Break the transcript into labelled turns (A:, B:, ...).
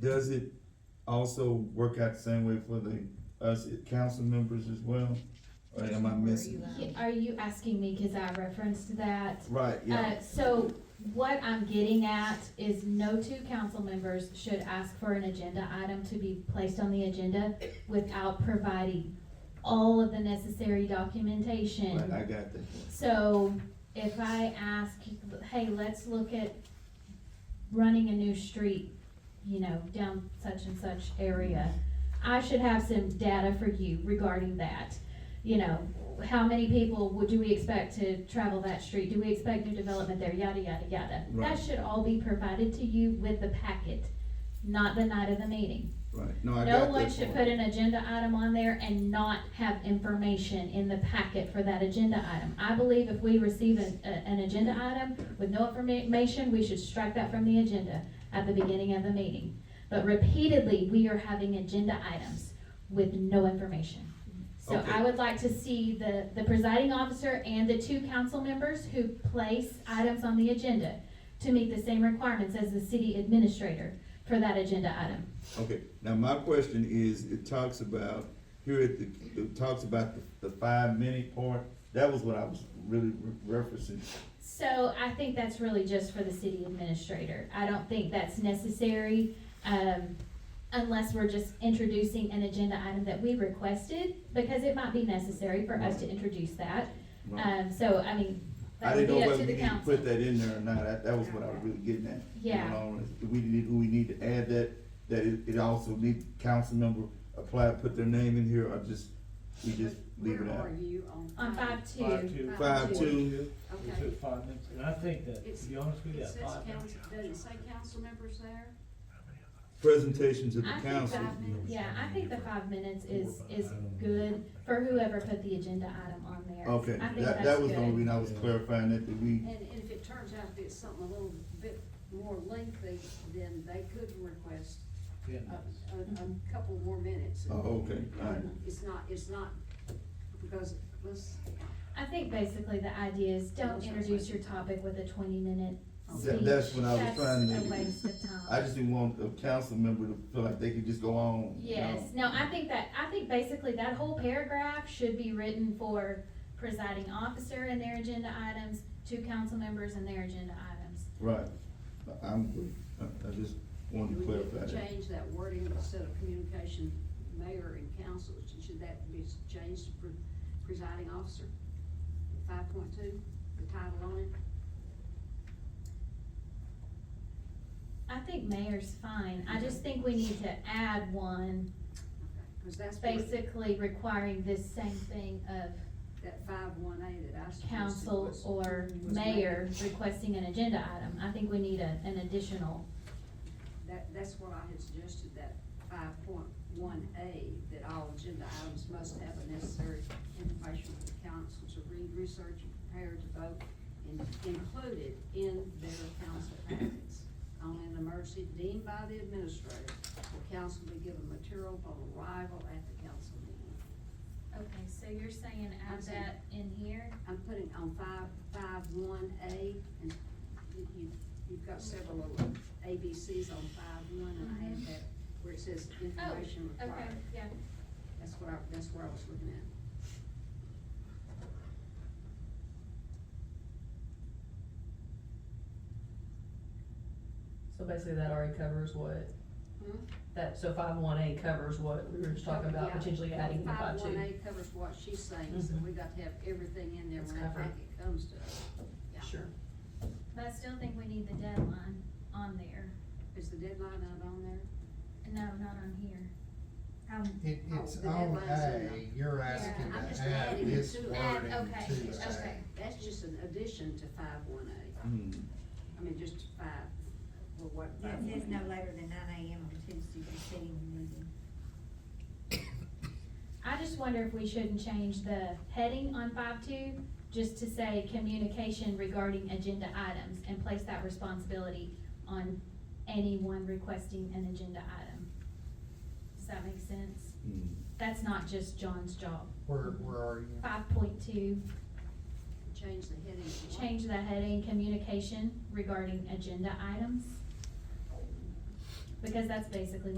A: does it also work out the same way for the, us council members as well? Or am I missing?
B: Yeah, Are you asking me, cause I referenced that?
A: Right, yeah,
B: Uh, so what I'm getting at is no two council members should ask for an agenda item to be placed on the agenda without providing all of the necessary documentation.
A: right, I got that.
B: So if I ask, hey, let's look at running a new street, you know, down such and such area, I should have some data for you regarding that. You know, how many people would, do we expect to travel that street? Do we expect new development there? Yada, yada, yada. That
A: Right.
B: should all be provided to you with the packet, not the night of the meeting.
A: Right, no, I got
B: No
A: that.
B: one should put
A: part.
B: an agenda item on there and not have information in the packet for that agenda item. I believe if we receive an, a- an agenda item with no information, we should strike that from the agenda at the beginning of the meeting. But repeatedly, we are having agenda items with no information. So
A: Okay.
B: I would like to see the, the presiding officer and the two council members who place items on the agenda to meet the same requirements as the city administrator for that agenda item.
A: Okay, now my question is, it talks about, here at the, it talks about the, the five minute part, that was what I was really re- referencing.
B: So I think that's really just for the city administrator. I don't think that's necessary, um, unless we're just introducing an agenda item that we requested, because it might be necessary for us to introduce that.
A: Right.
B: Um, so, I mean,
A: I
B: that would
A: didn't
B: be
A: know
B: up
A: whether we
B: to the
A: need to put
B: council.
A: that in there or not, that, that was what I was really getting at. You
B: Yeah.
A: know, Do we need, do we need to add that, that it, it also need, council member apply, put their name in here, or just, we just leave it
C: Where
A: out?
C: are you on?
B: On five
D: Five
B: two,
D: two.
A: Five, two,
D: We
C: Okay.
D: took five minutes, and I think that,
C: It's-
D: to be honest with you,
C: It
D: that
C: says
D: five minutes.
C: council, does it say council members there?
A: presentation to the
B: I think
A: council.
B: five minutes, yeah, I think the five minutes is, is good for whoever put the agenda item on there.
A: Okay,
B: I think
A: that,
B: that's
A: that was the only
B: good.
A: reason I was clarifying that, that we,
C: And and if it turns out that it's something a little bit more lengthy, then they could request
D: Yeah.
C: a, a, a couple more minutes.
A: oh, okay, alright.
C: It's not, it's not, because let's,
B: I think basically the idea is don't
C: Sounds
B: introduce
C: like-
B: your topic with a twenty minute
A: Oh. That-
B: speech.
A: that's what I was
B: That's
A: trying to-
B: a waste of time.
A: I just didn't want a council member to feel like they could just go on. you know?
B: Yes, no, I think that, I think basically that whole paragraph should be written for presiding officer and their agenda items, two council members and their agenda items.
A: Right, I- I'm, good. I, I just wanted to
C: we
A: clarify
C: could
A: that.
C: change that wording instead of communication, mayor and council, should that be changed to pre- presiding officer? Five point two, the title on it?
B: I think mayor's fine, I just think we need to add one,
C: Because that's where
B: basically requiring this same thing of
C: that five one A that I suggested
B: council
C: was-
B: or
C: was
B: mayor
C: made.
B: requesting an agenda item. I think we need a, an additional
C: That, that's what I had suggested, that five point one A, that all agenda items must have the necessary information for the council to read, research, and prepare to vote, and included in their council packets. On an emergency deemed by the administrator, the council be given material upon arrival at the council meeting.
B: Okay, so you're saying add
C: I'm saying-
B: that in here?
C: I'm putting on five, five one A, and you, you- you've got several little ABCs on five one, and I
E: Mm-hmm.
C: had that where it says
E: Oh,
C: information required.
B: yeah.
C: That's what I, that's where I was looking at.
F: So basically that already covers what,
E: Mm-hmm.
F: that, so five one eight covers what we were just talking about,
C: Yeah.
F: potentially adding the five
C: Five one
F: two.
C: A covers what she's saying, so
F: Mhm.
C: we got to have everything in there
F: It's
C: when that
F: covered.
C: packet comes to us. Yeah.
F: Sure.
B: But I still think we need the deadline on there.
C: Is the deadline not on there?
B: No, not on here.
G: It, it's
C: Oh, the
G: on
C: deadline's in
G: A, you're asking
B: Yeah, I'm
C: just
G: to add
C: adding it
G: this
C: to it.
G: wording
B: Add, okay,
G: to
C: It's just-
G: A.
B: okay.
C: That's just an addition to five one A,
A: Hmm.
C: I mean, just five, well, what?
E: It says no later than nine AM on Tuesday preceding the meeting.
B: I just wonder if we shouldn't change the heading on five two, just to say communication regarding agenda items and place that responsibility on anyone requesting an agenda item. Does that make sense?
A: Hmm.
B: That's not just John's job.
G: Where, where are you?
B: Five point two,
C: Change the heading. to what?
B: change the heading, communication regarding agenda items. because that's basically